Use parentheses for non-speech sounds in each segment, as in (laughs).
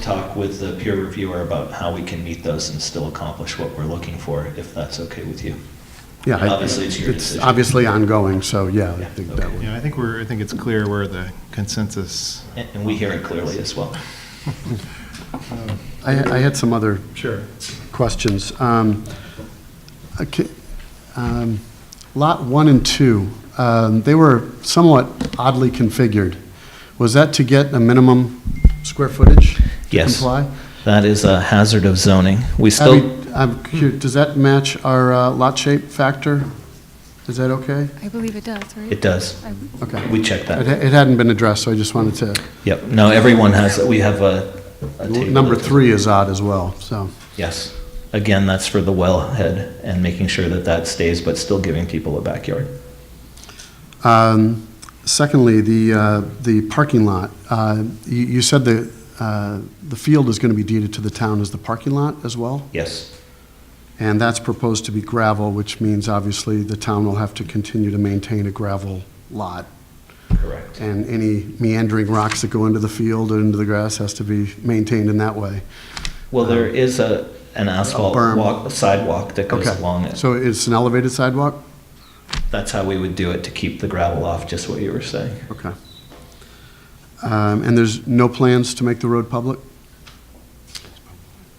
talk with the peer reviewer about how we can meet those and still accomplish what we're looking for, if that's okay with you. Yeah, I- Obviously, it's your It's decision. obviously ongoing, so yeah, I Yeah, think that okay. would, Yeah, I think we're, I think it's clear where the consensus. And and we hear it clearly as well. I I had some other Sure. questions. Um, okay, um, Lot 1 and 2, um, they were somewhat oddly configured. Was that to get a minimum square footage? to Yes. Comply? That is a hazard of zoning. We I still, mean, I'm curious, does that match our uh, lot shape factor? Is that okay? I believe it does, right? it does. I- Okay. We check It that. it hadn't been addressed, so I just wanted to, Yep. No, everyone has, we have a. a table number that- three is odd as well, so. Yes. Again, that's for the wellhead and making sure that that stays, but still giving people a backyard. Um, Secondly, the, uh, the parking lot, Uh, you you said the, uh, the field is going to be deeded to the town as the parking lot as well? Yes. And that's proposed to be gravel, which means obviously the town will have to continue to maintain a gravel lot. Correct. And any meandering rocks that go into the field or into the grass has to be maintained in that way. Well, there is a, an asphalt berm. walk, sidewalk that goes Okay. along it. So it's an elevated sidewalk? That's how we would do it to keep the gravel off, just what you were saying. Okay. Um, And there's no plans to make the road public?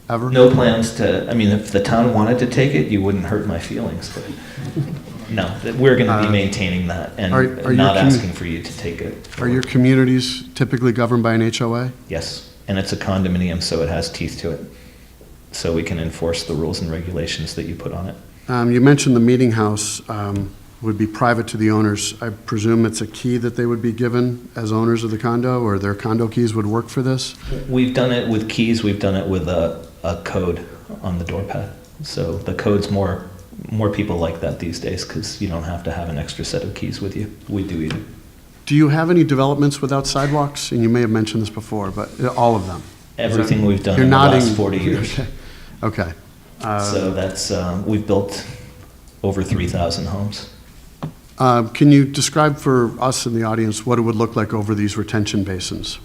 Ever? No plans to, I mean, if the town wanted to take it, you wouldn't hurt my feelings, but no, that we're going to be Uh, maintaining that are- are your and not commu- asking for you to take it. Are your communities typically governed by an HOA? Yes, and it's a condominium, so it has teeth to it. So we can enforce the rules and regulations that you put on it. Um, You mentioned the meeting house um, would be private to the owners. I presume it's a key that they would be given as owners of the condo, or their condo keys would work for this? We've done it with keys, we've done it with a, a code on the door pad. So the code's more, more people like that these days because you don't have to have an extra set of keys with you. We do either. Do you have any developments without sidewalks? And you may have mentioned this before, but uh, all of them. Everything we've done You're in the nodding. last 40 years. (laughs) Okay. Okay. So that's, um, we've built over 3,000 homes. Um, Can you describe for us in the audience what it would look like over these retention basins?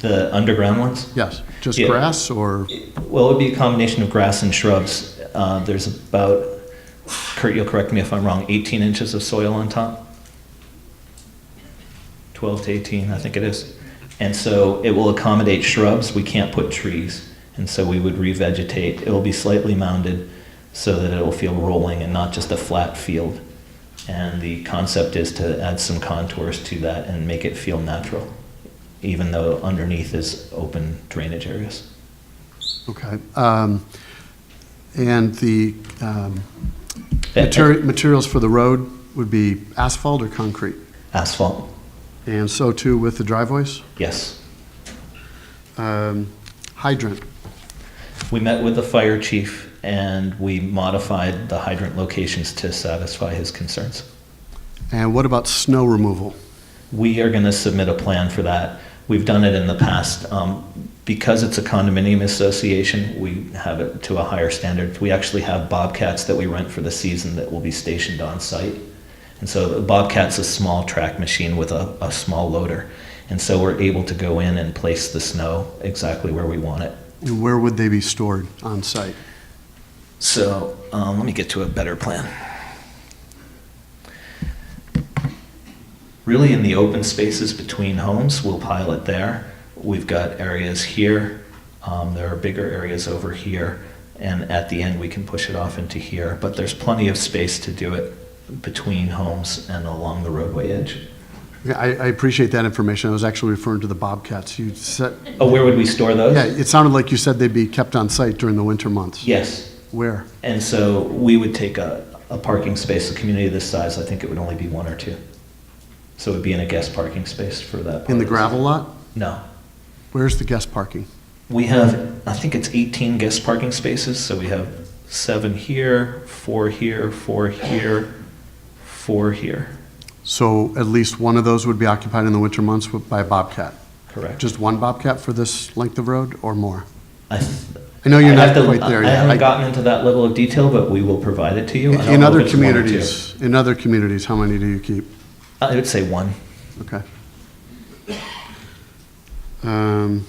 The underground ones? Yes, just Yeah. grass or? Well, it would be a combination of grass and shrubs. Uh, There's about, Kurt, you'll correct me if I'm wrong, 18 inches of soil on top? 12 to 18, I think it is. And so it will accommodate shrubs, we can't put trees, and so we would revegetate. It will be slightly mounded so that it will feel rolling and not just a flat field. And the concept is to add some contours to that and make it feel natural, even though underneath is open drainage areas. Okay. um, And the um, Yeah, materi- materials for the road would be asphalt or concrete? Asphalt, And so too with the driveways? yes. Um, Hydrant, We met with the fire chief and we modified the hydrant locations to satisfy his concerns. and what about snow removal? We are going to submit a plan for that. We've done it in the past. Um, Because it's a condominium association, we have it to a higher standard. We actually have bobcats that we rent for the season that will be stationed on site. And so the bobcat's a small track machine with a, a small loader. And so we're able to go in and place the snow exactly where we want it. And where would they be stored on site? So um, let me get to a better plan. Really, in the open spaces between homes, we'll pile it there. We've got areas here. Um, there are bigger areas over here, and at the end we can push it off into here. But there's plenty of space to do it between homes and along the roadway edge. Yeah, I I appreciate that information. I was actually referring to the Bobcats. You said, Oh, where would we store those? yeah, it sounded like you said they'd be kept on site during the winter months. Yes. Where? And so we would take a, a parking space, a community this size, I think it would only be one or two. So it would be in a guest parking space for that. part In the of gravel lot? No. Where's the guest parking? We have, I think it's 18 guest parking spaces, so we have seven here, four here, four here, four here, So at least one of those would be occupied in the winter months with- by a Bobcat? correct? Just one Bobcat for this length of road or more? I th- I know you're I'd have not to- quite there I yet. haven't I- gotten into that level of detail, but we will provide it to you. I don't In know other if it's one or two. communities, in other communities, how many do you keep? I would say one. Okay. Um,